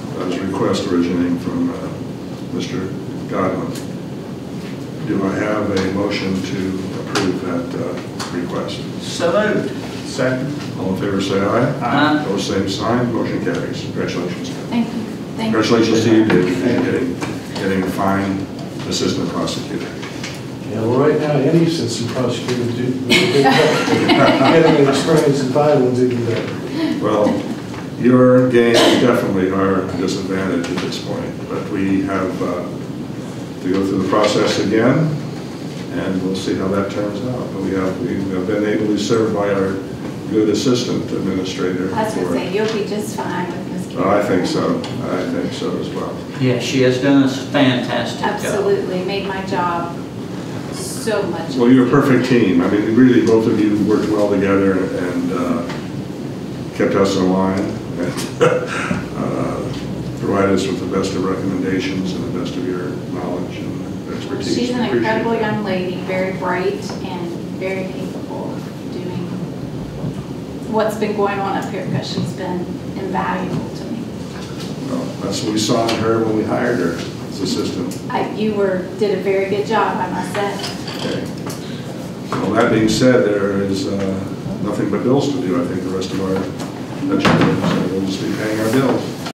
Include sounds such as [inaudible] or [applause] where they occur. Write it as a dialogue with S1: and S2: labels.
S1: as a uh, request originating from uh, Mr. Godwin. Do I have a motion to approve that uh, request?
S2: So moved.
S3: Second.
S1: All in favor, say aye.
S2: Aye.
S1: Opposed, same sign, motion carries. Congratulations.
S4: Thank you. Thank you.
S1: Congratulations to you, David, for getting, getting a fine assistant prosecutor.
S3: Yeah, well, right now, any assistant prosecutor do, would be good. getting experience in violence even better.
S1: Well, your gains definitely are a disadvantage at this point, but we have uh, to go through the process again, and we'll see how that turns out. But we have, we have been ably served by our good assistant administrator.
S4: I was gonna
S1: for-
S4: say, you'll be just fine with Ms. Carroll.
S1: Oh, I think so, I think so as well.
S2: Yeah, she has done a fantastic job.
S4: Absolutely, made my job so much.
S1: Well, you're a
S4: easier.
S1: perfect team. I mean, really, both of you worked well together and uh, kept us in line and [laughs] uh, provided us with the best of recommendations and the best of your knowledge and
S4: Well,
S1: expertise.
S4: She's an
S1: Appreciate
S4: incredible
S1: that.
S4: young lady, very bright and very capable of doing what's been going on up here because she's been invaluable to me.
S1: Well, That's what we saw in her when we hired her as assistant.
S4: I- You were, did a very good job, I must say.
S1: Okay. Well, that being said, there is uh, nothing but bills to do, I think, the rest of our agenda. So we'll just be paying our bills.